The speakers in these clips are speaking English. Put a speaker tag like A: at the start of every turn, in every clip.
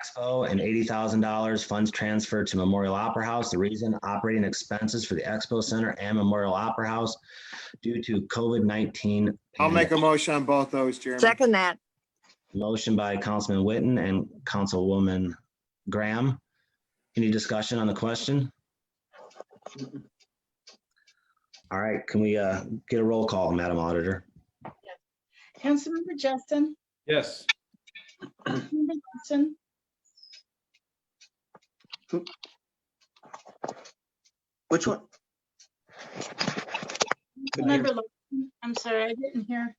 A: Expo and eighty thousand dollars funds transferred to Memorial Opera House. The reason operating expenses for the Expo Center and Memorial Opera House due to COVID nineteen.
B: I'll make a motion on both those, Jeremy.
C: Second that,
A: Motion by Councilman Witten and Councilwoman Graham. Any discussion on the question? All right, can we uh, get a roll call, Madam Auditor?
D: Councilmember Justin,
E: Yes.
D: Councilmember Justin.
F: Which one? Couldn't hear.
D: Councilmember Larson, I'm sorry, I didn't hear.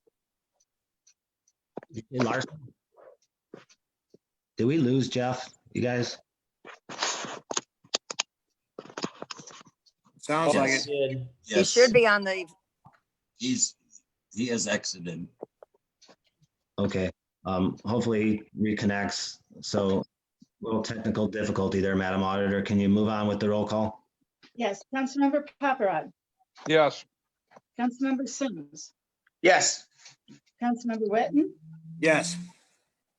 A: Larson? Did we lose Jeff? You guys?
B: Sounds like it.
C: he
G: Yes,
C: should be on the,
G: he's, he has exited.
A: Okay, um, hopefully reconnects. So little technical difficulty there, Madam Auditor. Can you move on with the roll call?
D: Yes, Councilmember Paparad,
E: Yes.
D: Councilmember Sims,
F: Yes.
D: Councilmember Witten,
B: Yes,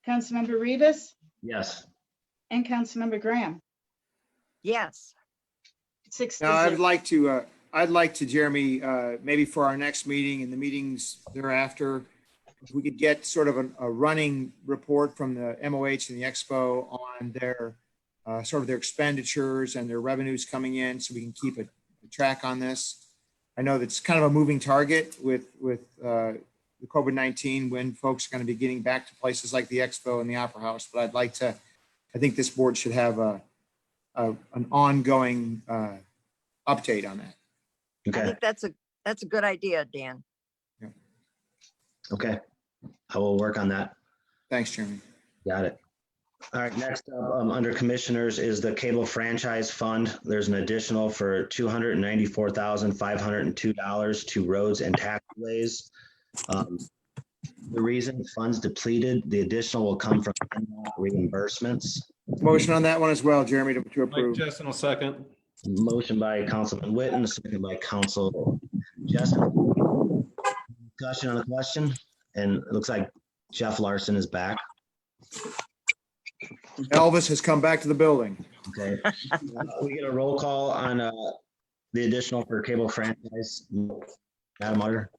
D: Councilmember Rivas,
A: Yes.
D: and Councilmember Graham.
C: yes,
D: Six to
B: now I'd
D: zero.
B: like to, uh, I'd like to, Jeremy, uh, maybe for our next meeting and the meetings thereafter, if we could get sort of an- a running report from the MOH and the Expo on their, uh, sort of their expenditures and their revenues coming in, so we can keep a a track on this. I know that's kind of a moving target with, with uh, the COVID-19, when folks are going to be getting back to places like the Expo and the Opera House, but I'd like to, I think this board should have a, a- an ongoing uh, update on that.
C: I
A: Okay,
C: think that's a, that's a good idea, Dan.
A: okay. I will work on that.
B: Thanks, Jeremy.
A: Got it. All right, next up, um, under Commissioners is the Cable Franchise Fund. There's an additional for two hundred and ninety-four thousand, five hundred and two dollars to roads and taxiways. Um, The reason funds depleted, the additional will come from reimbursements.
B: Motion on that one as well, Jeremy, to- to
E: Mike
B: approve.
E: Justin will second.
A: Motion by Councilman Witten, second by Council Jessup. Discussion on the question, and it looks like Jeff Larson is back.
B: Elvis has come back to the building.
A: Okay. Uh, We get a roll call on uh, the additional for cable franchise. Madam Auditor?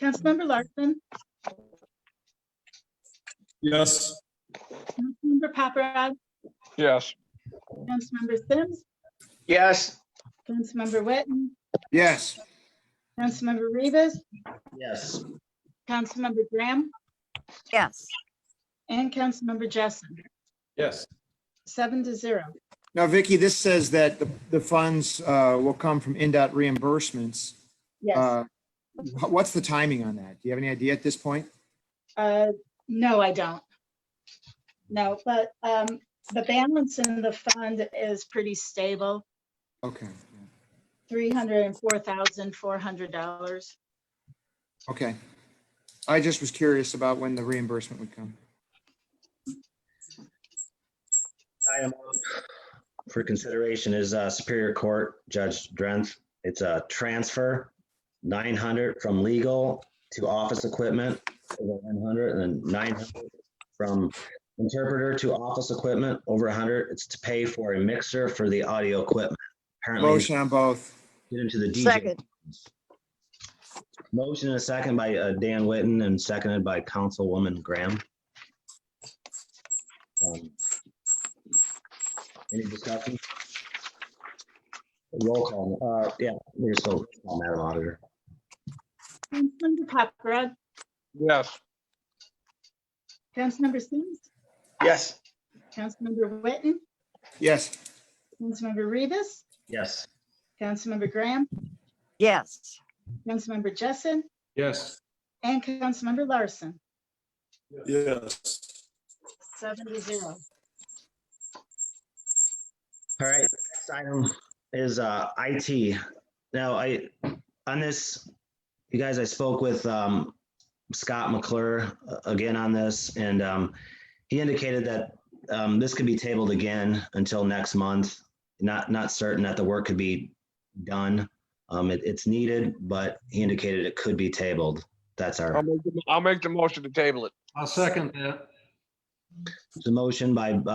D: Councilmember Larson,
E: Yes.
D: Councilmember Paparad,
E: Yes.
D: Councilmember Sims,
F: Yes.
D: Councilmember Witten,
B: Yes,
D: Councilmember Rivas,
A: Yes.
D: Councilmember Graham,
C: Yes,
D: and Councilmember Justin.
E: Yes.
D: Seven to zero.
B: now Vicky, this says that the, the funds uh, will come from NDOT reimbursements.
D: Yes.
B: Uh, wh- What's the timing on that? Do you have any idea at this point?
D: Uh, No, I don't. No, but um, the balance in the fund is pretty stable,
B: Okay,
D: $304,400.
B: okay. I just was curious about when the reimbursement would come.
A: Item For consideration is uh, Superior Court Judge Drenth. It's a transfer, 900 from legal to office equipment, over 100, and then 900 from interpreter to office equipment, over 100. It's to pay for a mixer for the audio equipment. Apparently,
B: Motion on both.
A: get into the DJ.
C: second,
A: Motion and a second by uh, Dan Witten and seconded by Councilwoman Graham. Um, Any discussion? Roll call. Uh, yeah, we're still, Madam Auditor.
D: Councilmember Paparad,
E: Yes.
D: Councilmember Sims,
F: Yes.
D: Councilmember Witten,
B: Yes,
D: Councilmember Rivas,
A: Yes.
D: Councilmember Graham,
C: yes,
D: Councilmember Jessen,
E: Yes.
D: and Councilmember Larson,
E: Yes.
D: seven to zero.
A: All right, next item is uh, IT. Now, I, on this, you guys, I spoke with um, Scott McClure uh, again on this, and um, he indicated that um, this could be tabled again until next month. Not, not certain that the work could be done. Um, it- It's needed, but he indicated it could be tabled. That's our,
H: I'll make, the- I'll make the motion to table it.
E: I'll second that.
A: The motion by, uh,